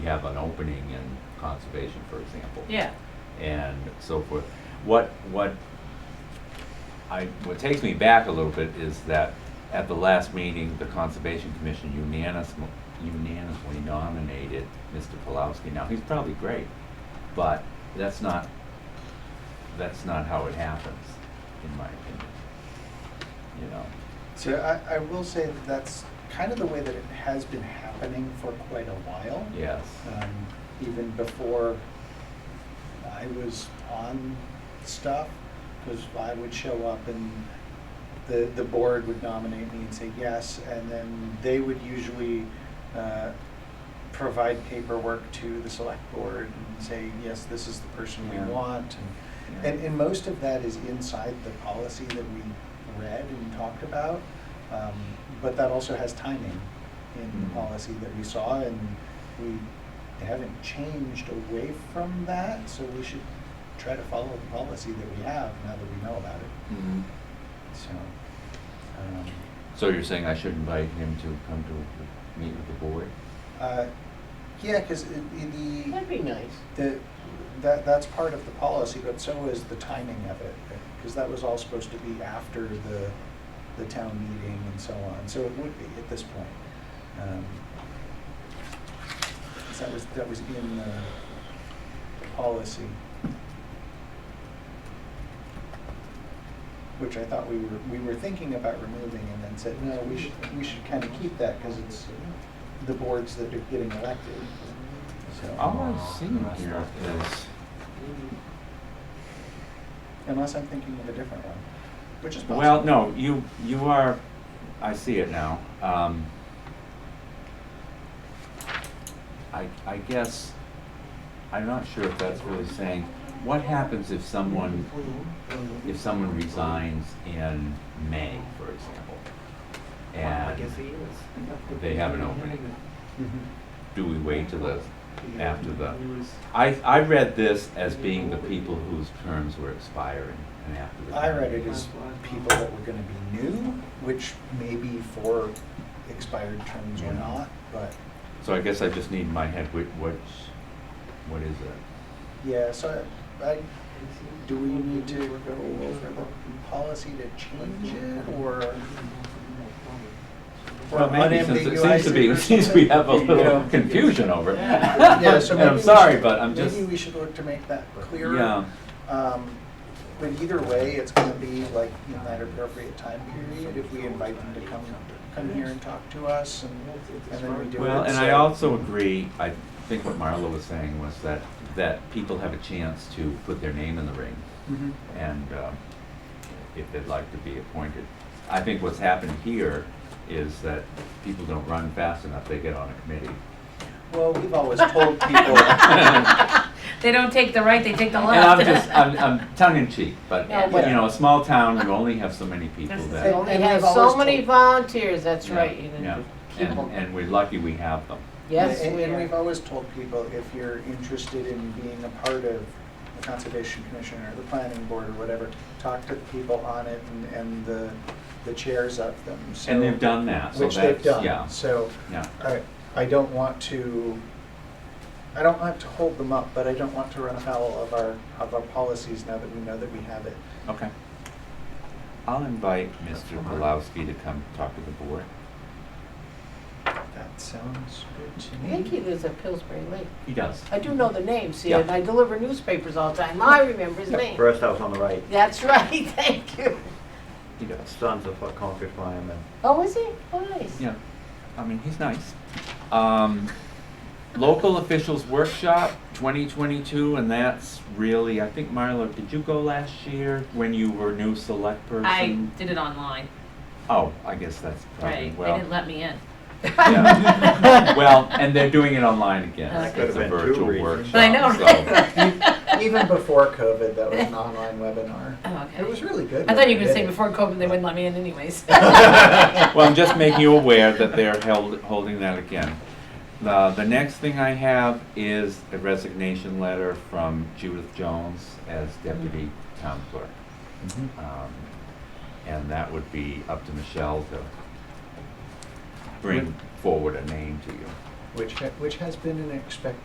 we have an opening in conservation, for example. Yeah, And so forth. What, what I, what takes me back a little bit is that at the last meeting, the Conservation Commission unanimously, unanimously nominated Mr. Pulowski. Now, he's probably great, but that's not, that's not how it happens, in my opinion. You know, So I, I will say that that's kind of the way that it has been happening for quite a while. yes, Um, even before I was on stuff, because I would show up and the, the board would nominate me and say yes, and then they would usually, uh, provide paperwork to the select board and say, yes, this is the person we Yeah. want. Yeah. And, and most of that is inside the policy that we read and talked about. Um, But that also has timing in the Mhm. policy that we saw, and we haven't changed away from that, so we should try to follow the policy that we have now that we know about it, Mm-hmm. so. um, So you're saying I should invite him to come to meet with the board? uh, Yeah, because the. that'd be nice. The, that, that's part of the policy, but so is the timing of it, because that was all supposed to be after the, the town meeting and so on, so it would be at this point. Um, 'cause That was, that was in the policy. Which I thought we were, we were thinking about removing and then said, no, we should, we should kind of keep that, because it's the boards that are getting elected, so. All I've seen here is, Unless I'm thinking of a different one, which is possible. well, no, you, you are, I see it now. Um, I, I guess, I'm not sure if that's really saying, what happens if someone, if someone resigns in May, for example? I And guess he is. they have an opening. Mhm. do we wait till the, after the? I, I read this as being the people whose terms were expiring and after the. I read it as people that were gonna be new, which may be for expired terms or Yeah. not, but, So I guess I just need in my head, which, which, what is it? yeah, so I, I, do we need to go over the policy to change it, or? or Well, maybe since it seems to unambiguize it be, or since we have a something? You little know? confusion over it. Yeah, so And maybe I'm we sorry, should- but I'm just, Maybe we should look to make that clearer. yeah, Um, But either way, it's gonna be like in that appropriate time period if we invite them to come, come here and talk to us and, and then we do it. well, and I so- also agree, I think what Marla was saying was that, that people have a chance to put their name in the ring. Mhm. and um, if they'd like to be appointed. I think what's happened here is that people don't run fast enough, they get on a committee. Well, we've always told people, They don't take the right, they take the And I'm left. just, I'm, I'm tongue in cheek, but, Yeah. you know, a small town, you only have so many people That's the They thing. that. only They have have always so many told- volunteers, that's right. you Yeah, know. yeah. and, and we're lucky we have them. Yes, and, we and we've are. always told people, if you're interested in being a part of the Conservation Commission or the Planning Board or whatever, talk to the people on it and, and the, the chairs of them, so. And they've done that, so Which they've that's, done, yeah, so. yeah. I, I don't want to, I don't want to hold them up, but I don't want to run afoul of our, of our policies now that we know that we have it. Okay. I'll invite Mr. Pulowski to come talk to the board. That sounds good to I think he lives at Pillsbury Lake. He does. I do know the name, see, Yeah. and I deliver newspapers all the time. I remember his name. First house on the right, That's right, thank you. He does. sons of a Concord firemen. Oh, is he? Oh, nice. Yeah, I mean, he's nice. Um, local officials workshop 2022, and that's really, I think, Marlo, did you go last year when you were new select person? I did it online, Oh, I guess that's probably right? They well. didn't let me in. yeah. well, and they're doing it online again. That so could've it's a been two virtual reasons. workshop. Oh, But I know, Even before COVID, that was an online webinar. Oh, okay. It was really good. I thought you were gonna when we say did it. before COVID, they wouldn't let me in anyways. So, well, I'm just making you aware that they're held, holding that again. The, the next thing I have is a resignation letter from Judith Jones as deputy town clerk. Mhm. Um, And that would be up to Michelle to bring forward a name to you. which, ha- which has been an expectation